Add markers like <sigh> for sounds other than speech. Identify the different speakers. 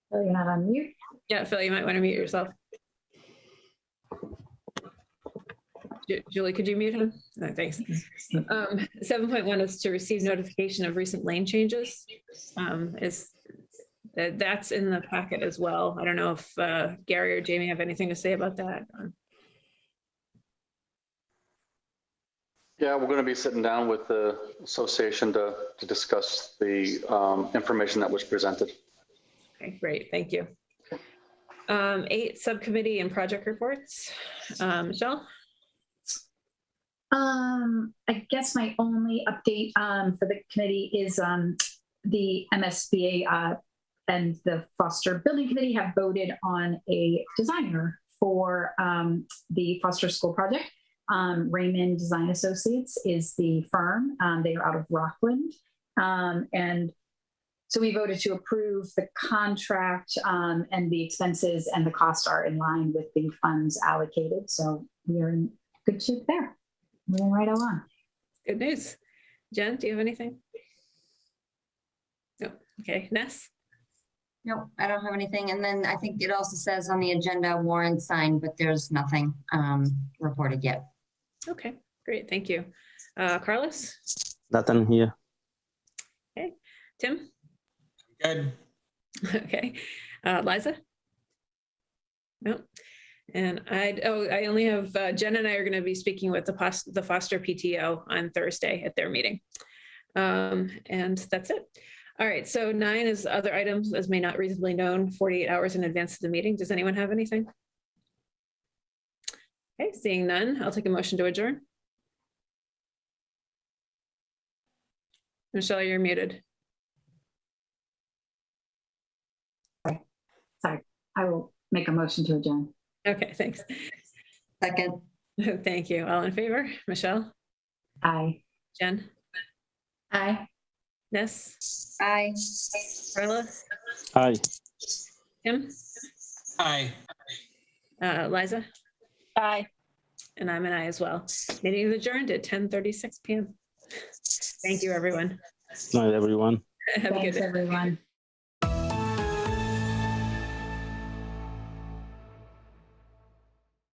Speaker 1: Phil, you're not on mute.
Speaker 2: Yeah, Phil, you might want to mute yourself. Ju- Julie, could you mute him? No, thanks. Um, seven point one is to receive notification of recent lane changes. Um, is, that, that's in the packet as well. I don't know if, uh, Gary or Jamie have anything to say about that. or-
Speaker 3: Yeah, we're going to be sitting down with the association to, to discuss the um, information that was presented.
Speaker 2: Okay, great, thank you. Um, eight, subcommittee and project reports. Um, Michelle?
Speaker 1: Um, I guess my only update, um, for the committee is, um, the MSBA, uh, and the Foster Building Committee have voted on a designer for, um, the Foster School Project. Um, Raymond Design Associates is the firm. Um, they are out of Rockland. Um, and so we voted to approve the contract, um, and the expenses and the costs are in line with the funds allocated. So we are in good shape there moving right along.
Speaker 2: Good news. Jen, do you have anything? No, okay, Ness?
Speaker 4: No, I don't have anything. And then I think it also says on the agenda warrant signed, but there's nothing um, reported yet.
Speaker 2: Okay, great, thank you. Uh, Carlos,
Speaker 5: Nothing here.
Speaker 2: Tim,
Speaker 6: Good.
Speaker 2: <laughs> okay, uh, Liza? No, and I, oh, I only have, uh, Jen and I are gonna be speaking with the pos, the Foster PTO on Thursday at their meeting. Um, and that's it. All right, so nine is other items as may not reasonably known forty-eight hours in advance of the meeting. Does anyone have anything? Okay, seeing none, I'll take a motion to adjourn. Michelle, you're muted.
Speaker 1: I will make a motion to adjourn.
Speaker 2: Okay, thanks.
Speaker 4: Second,
Speaker 2: <laughs> Thank you. All in favor? Michelle,
Speaker 1: Aye.
Speaker 2: Jen,
Speaker 1: Aye.
Speaker 2: Ness,
Speaker 4: aye.
Speaker 2: Carla,
Speaker 5: Aye.
Speaker 2: Tim,
Speaker 6: Hi.
Speaker 2: uh, Liza,
Speaker 7: Bye.
Speaker 2: and I'm an I as well. Meeting is adjourned at 10:36 PM. Thank you, everyone. <laughs>
Speaker 5: Night, everyone.
Speaker 2: Have a good
Speaker 1: Thanks,
Speaker 2: day.
Speaker 1: everyone.